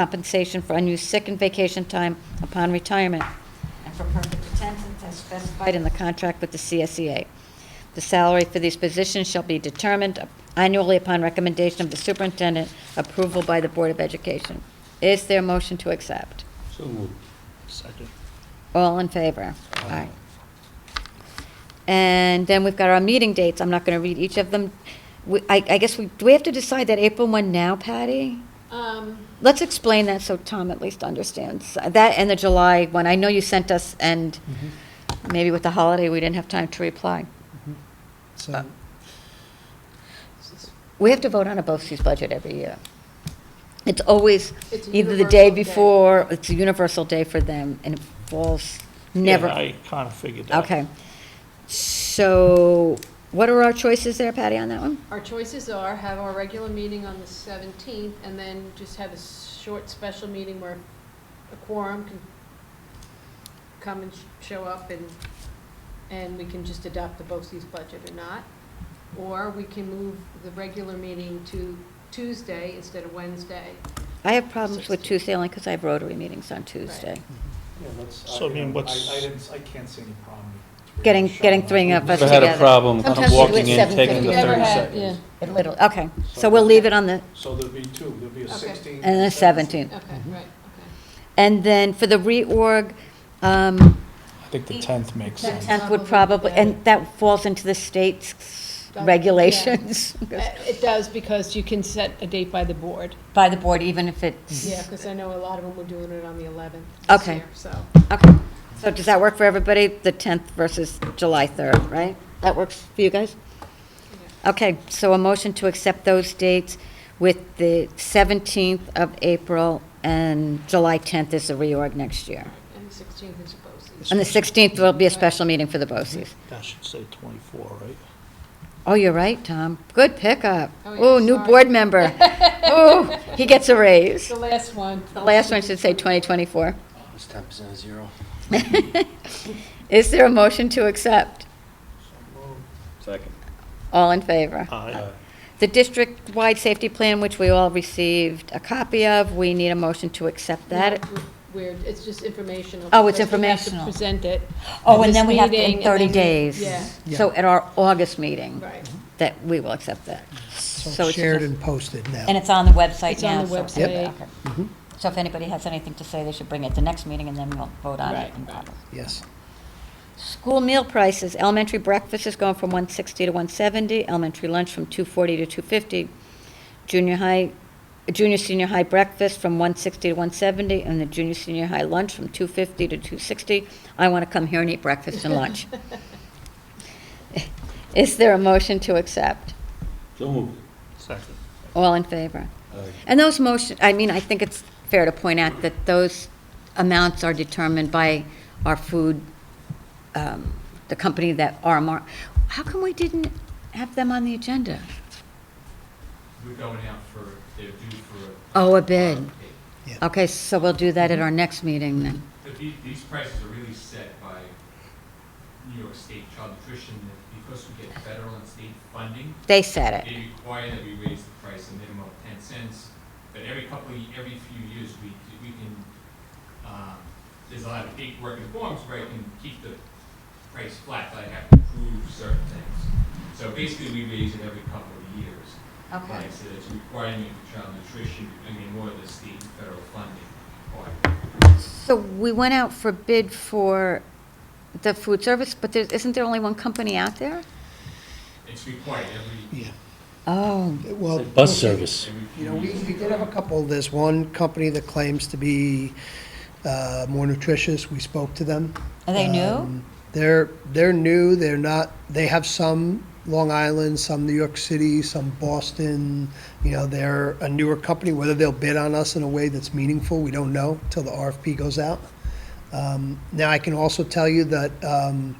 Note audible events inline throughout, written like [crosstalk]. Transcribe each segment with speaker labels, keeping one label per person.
Speaker 1: compensation for unused sick and vacation time upon retirement, and for perfect attendance as specified in the contract with the CSEA. The salary for these positions shall be determined annually upon recommendation of the superintendent, approval by the Board of Education. Is there a motion to accept?
Speaker 2: So moved.
Speaker 3: Second.
Speaker 1: All in favor? Aye. And then we've got our meeting dates. I'm not going to read each of them. We- I I guess we, do we have to decide that April 1 now, Patty?
Speaker 4: Um,
Speaker 1: Let's explain that so Tom at least understands. That and the July one. I know you sent us, and
Speaker 3: Mm-hmm.
Speaker 1: maybe with the holiday, we didn't have time to reply.
Speaker 3: Mm-hmm. So,
Speaker 1: We have to vote on a BOCES budget every year. It's always
Speaker 4: It's a
Speaker 1: either the day
Speaker 4: universal day.
Speaker 1: before, it's a universal day for them, and it falls never.
Speaker 3: Yeah, I kind of figured that.
Speaker 1: Okay. So what are our choices there, Patty, on that one?
Speaker 4: Our choices are have our regular meeting on the 17th and then just have a s- short special meeting where a quorum can come and sh- show up and, and we can just adopt the BOCES budget or not. Or we can move the regular meeting to Tuesday instead of Wednesday.
Speaker 1: I have problems with
Speaker 4: 16th.
Speaker 1: Tuesday only because I have Rotary meetings on Tuesday.
Speaker 3: Mm-hmm.
Speaker 5: Yeah, let's,
Speaker 3: So, I
Speaker 5: I
Speaker 3: mean,
Speaker 5: I-
Speaker 3: what's-
Speaker 5: I didn't, I can't see any problem. with
Speaker 1: Getting- getting three
Speaker 5: showing
Speaker 1: of us
Speaker 2: Never had a
Speaker 1: together.
Speaker 2: problem
Speaker 1: Sometimes we do
Speaker 2: walking
Speaker 1: it
Speaker 2: in, taking the
Speaker 1: 7:50. Never
Speaker 2: 30
Speaker 1: had,
Speaker 2: seconds.
Speaker 1: It literally, okay. So we'll leave it on the,
Speaker 5: So there'll be two, there'll be a
Speaker 4: Okay.
Speaker 5: 16.
Speaker 1: and the 17th.
Speaker 4: Okay, right,
Speaker 1: And then for the reorg, um,
Speaker 3: I think the tenth makes
Speaker 1: the
Speaker 3: sense.
Speaker 1: 10th would probably, and that falls into the state's regulations
Speaker 4: okay. Uh, It does because you can set a date by the board.
Speaker 1: by the board, even if it's,
Speaker 4: Yeah, because I know a lot of them were doing it on the 11th this
Speaker 1: Okay.
Speaker 4: year, so.
Speaker 1: okay. So does that work for everybody, the 10th versus July 3rd, right? That works for you guys? Okay, so a motion to accept those dates with the 17th of April and July 10th is the reorg next year.
Speaker 4: And the 16th is a BOCES.
Speaker 1: And the 16th will be a special meeting for the BOCES.
Speaker 3: That should say twenty-four, right?
Speaker 1: Oh, you're right, Tom. Good pickup.
Speaker 4: Oh, yeah,
Speaker 1: Oh, new
Speaker 4: sorry.
Speaker 1: board [laughs] member. Oh, he gets a raise.
Speaker 4: The last one.
Speaker 1: The last one should say 2024.
Speaker 6: It's ten percent of zero.
Speaker 1: [laughs] Is there a motion to accept?
Speaker 2: Second.
Speaker 1: All in favor?
Speaker 3: Aye.
Speaker 1: The district-wide safety plan, which we all received a copy of, we need a motion to accept that.
Speaker 4: Weird, it's just informational.
Speaker 1: Oh, it's
Speaker 4: because we have to
Speaker 1: informational.
Speaker 4: present it.
Speaker 1: Oh,
Speaker 4: at
Speaker 1: and
Speaker 4: this
Speaker 1: then we have to,
Speaker 4: meeting,
Speaker 1: in
Speaker 4: and
Speaker 1: 30
Speaker 4: then we-
Speaker 1: days.
Speaker 4: Yeah,
Speaker 1: So at our August meeting,
Speaker 4: right.
Speaker 1: that we will accept that. So
Speaker 3: So
Speaker 1: it's
Speaker 3: shared
Speaker 1: just-
Speaker 3: and posted now.
Speaker 1: And it's on the website
Speaker 4: It's on
Speaker 1: now.
Speaker 4: the
Speaker 1: so-
Speaker 4: website. Yep. Mm-hmm.
Speaker 1: okay. So if anybody has anything to say, they should bring it to next meeting, and then we'll vote on it.
Speaker 4: Right.
Speaker 1: in August.
Speaker 3: Yes.
Speaker 1: School meal prices, elementary breakfast is going from 160 to 170, elementary lunch from 240 to 250, junior high, junior, senior high breakfast from 160 to 170, and the junior, senior high lunch from 250 to 260. I want to come here and eat breakfast and [laughs]
Speaker 4: [laughs]
Speaker 1: lunch. Is there a motion to accept?
Speaker 2: So moved.
Speaker 3: Second.
Speaker 1: All in favor?
Speaker 2: Aye.
Speaker 1: And those motion, I mean, I think it's fair to point out that those amounts are determined by our food, um, the company that RMR, how come we didn't have them on the agenda?
Speaker 7: We're going out for, they're due for.
Speaker 1: Oh, a bid.
Speaker 7: a-
Speaker 1: Okay, so we'll do that at our next meeting then.
Speaker 7: But the- these prices are really set by New York State Child Nutrition, and because we get federal and state funding,
Speaker 1: They said it.
Speaker 7: they require that we raise the price a minimum of ten cents. But every couple, of ye- every few years, we, we can, um, there's a lot of big work in forms where I can keep the price flat, but I have to prove certain things. So basically, we raise it every couple of years. Like I said, it's a requirement for child nutrition, I mean, more of the state and federal funding part.
Speaker 1: So we went out for bid for the food service, but there, isn't there only one company out there?
Speaker 7: It's required every,
Speaker 3: Yeah.
Speaker 1: Oh,
Speaker 3: Well.
Speaker 2: Bus service.
Speaker 7: every
Speaker 3: You
Speaker 7: few
Speaker 3: know, we,
Speaker 7: years.
Speaker 3: we did have a couple, there's one company that claims to be uh, more nutritious, we spoke to them.
Speaker 1: Are they new?
Speaker 3: Um, They're, they're new, they're not, they have some Long Island, some New York City, some Boston, you know, they're a newer company, whether they'll bid on us in a way that's meaningful, we don't know till the RFP goes out. Um, Now, I can also tell you that um,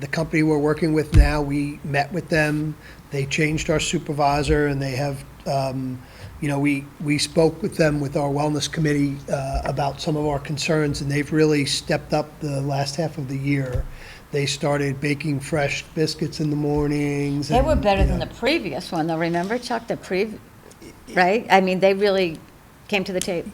Speaker 3: the company we're working with now, we met with them, they changed our supervisor, and they have, um, you know, we, we spoke with them with our wellness committee uh, about some of our concerns, and they've really stepped up the last half of the year. They started baking fresh biscuits in the mornings.
Speaker 1: They were
Speaker 3: and,
Speaker 1: better
Speaker 3: you
Speaker 1: than
Speaker 3: know,
Speaker 1: the previous one, though, remember, Chuck, the prev, right? I mean, they really came to the table.